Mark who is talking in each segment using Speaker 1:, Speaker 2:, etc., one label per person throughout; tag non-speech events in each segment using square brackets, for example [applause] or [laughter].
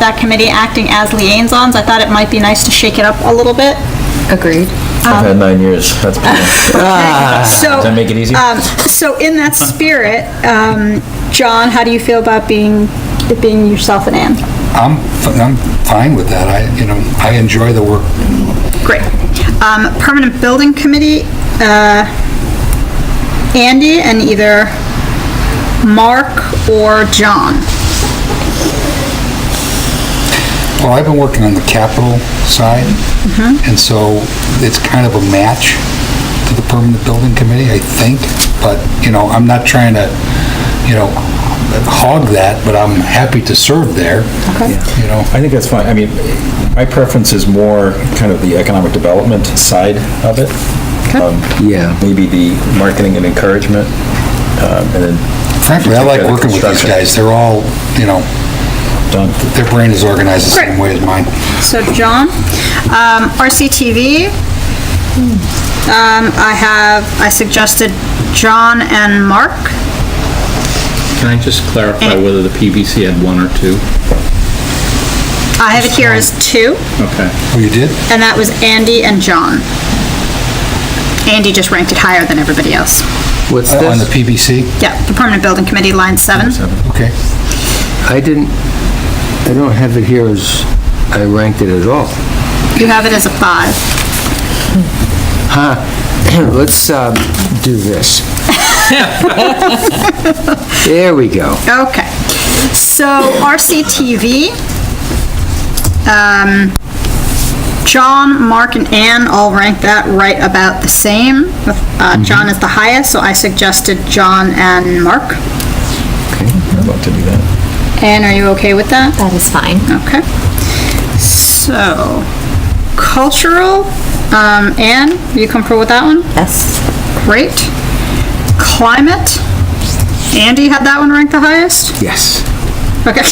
Speaker 1: that committee acting as liaisons. I thought it might be nice to shake it up a little bit.
Speaker 2: Agreed.
Speaker 3: I've had nine years. [laughs] That's pretty much. Ah, Does
Speaker 1: So,
Speaker 3: that make it easy?
Speaker 1: um, so in that spirit, um, John, how do you feel about being, it being yourself and Anne?
Speaker 4: I'm, f- I'm fine with that. I, you know, I enjoy the work.
Speaker 1: Great. Um, Permanent Building Committee, uh, Andy and either Mark or John.
Speaker 4: Well, I've been working on the capital side, and so it's kind of a match to the permanent building committee, I think. But, you know, I'm not trying to, you know, hog that, but I'm happy to serve there. Okay. You know,
Speaker 3: I think that's fine. I mean, my preference is more kind of the economic development side of it. Um,
Speaker 5: Yeah.
Speaker 3: Maybe the marketing and encouragement, um, and then
Speaker 4: frankly, I
Speaker 3: Take
Speaker 4: like
Speaker 3: care of the
Speaker 4: working with these
Speaker 3: construction.
Speaker 4: guys. They're all, you know,
Speaker 3: done.
Speaker 4: their brain is organized the same
Speaker 1: Great.
Speaker 4: way as mine.
Speaker 1: So John, um, RCTV, um, I have, I suggested John and Mark.
Speaker 6: Can I just clarify whether the PVC had one or two?
Speaker 1: I have it here as two,
Speaker 6: Okay.
Speaker 4: Oh, you did?
Speaker 1: and that was Andy and John. Andy just ranked it higher than everybody else.
Speaker 5: What's
Speaker 4: On the
Speaker 5: this?
Speaker 4: PBC?
Speaker 1: Yeah, the Permanent Building Committee, line seven.
Speaker 4: Okay.
Speaker 5: I didn't, I don't have it here as, I ranked it at all. [clears throat]
Speaker 1: You have it as a five.
Speaker 5: Let's um, do [laughs] this. There we go.
Speaker 1: Okay. So RCTV, um, John, Mark, and Ann all ranked that right about the same. with, uh, John is the highest, so I suggested John and Mark.
Speaker 3: I'd love to do that.
Speaker 1: Ann, are you okay with that?
Speaker 2: That is fine.
Speaker 1: Okay. So, cultural, um, Ann, you comfortable with that one?
Speaker 2: Yes.
Speaker 1: Great. Climate, Andy had that one ranked the highest?
Speaker 5: Yes.
Speaker 1: Okay.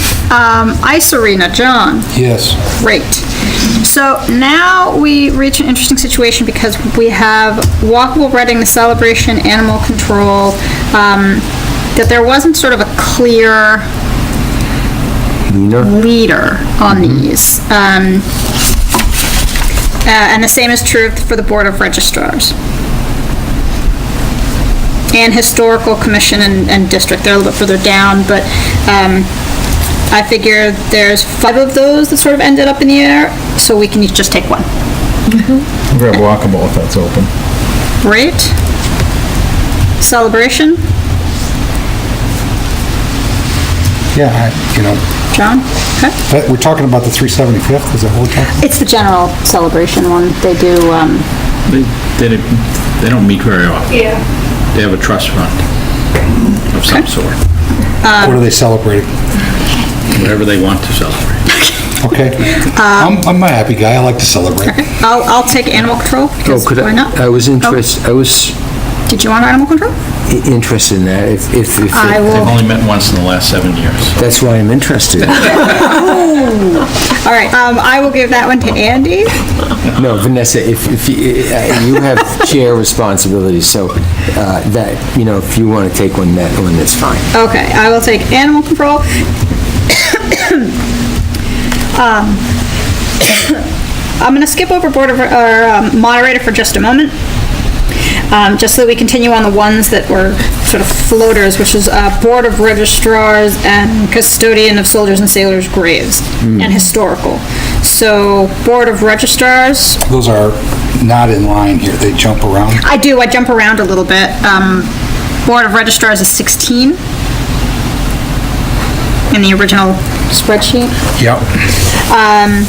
Speaker 1: [laughs] Um, Ice Arena, John,
Speaker 4: Yes.
Speaker 1: great. So now we reach an interesting situation because we have Walkable Reading, the celebration, animal control, um, that there wasn't sort of a clear
Speaker 5: Nina? Oh,
Speaker 1: leader on these. Um, uh, and the same is true for the Board of Registrars. And Historical Commission and, and District, they're a little bit further down, but, um, I figure there's five of those that sort of ended up in the air, so we can each just take one.
Speaker 3: Grab walkable if that's open.
Speaker 1: Great. Celebration,
Speaker 4: Yeah, I, you know,
Speaker 1: John? Okay.
Speaker 4: but we're talking about the 375th, is that what we're talking?
Speaker 1: It's the general celebration one. They do, um,
Speaker 6: They, they didn't- they don't meet very often. Yeah. They have a trust fund of some sort,
Speaker 4: What are they celebrating?
Speaker 6: whatever they want to celebrate.
Speaker 4: Okay. I'm, I'm a happy guy. I like to celebrate.
Speaker 1: I'll, I'll take animal control,
Speaker 5: Oh,
Speaker 1: because
Speaker 5: could
Speaker 1: why not?
Speaker 5: I, I was
Speaker 1: Oh,
Speaker 5: interested, I was
Speaker 1: Did you want animal control?
Speaker 5: i- interested in that, if, if, if
Speaker 1: I
Speaker 5: it-
Speaker 6: They've
Speaker 1: will,
Speaker 6: only met once in the last seven years. so-
Speaker 5: that's why I'm [laughs] interested.
Speaker 1: all right, um, I will give that one to Andy.
Speaker 5: No, Vanessa, if, if, you- uh, you have chair responsibilities, so uh, that, you know, if you want to take one, that one, that's fine.
Speaker 1: Okay, I will take animal control. [coughs] Um, [coughs] I'm gonna skip over board of, or um, moderator for just a moment, um, just so that we continue on the ones that were sort of floaters, which is, uh, Board of Registrars and Custodian of Soldiers and Sailors' Graves, and Historical. So, Board of Registrars,
Speaker 4: Those are not in line here. They jump around.
Speaker 1: I do, I jump around a little bit. Um, Board of Registrars is 16 in the original spreadsheet.
Speaker 4: Yep.
Speaker 1: Um,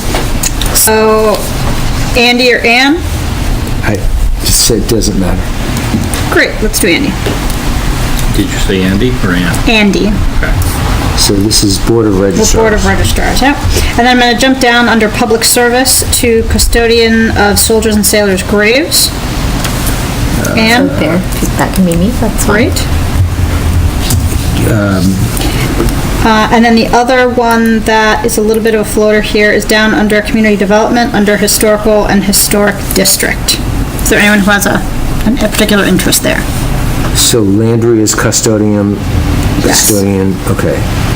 Speaker 1: so Andy or Ann?
Speaker 5: I, so it doesn't matter.
Speaker 1: Great, let's do Andy.
Speaker 6: Did you say Andy or Ann?
Speaker 1: Andy,
Speaker 6: Okay.
Speaker 5: So this is Board of
Speaker 1: the
Speaker 5: Registrars.
Speaker 1: Board of Registrars, yep. And then I'm gonna jump down under Public Service to Custodian of Soldiers and Sailors' Graves.
Speaker 2: So
Speaker 1: Ann,
Speaker 2: there, that can be me, that's fine.
Speaker 1: great. Uh, and then the other one that is a little bit of a floater here is down under community development, under historical and historic district. Is there anyone who has a, a particular interest there?
Speaker 5: So Landry is custodian,
Speaker 1: Yes.
Speaker 5: custodian, okay.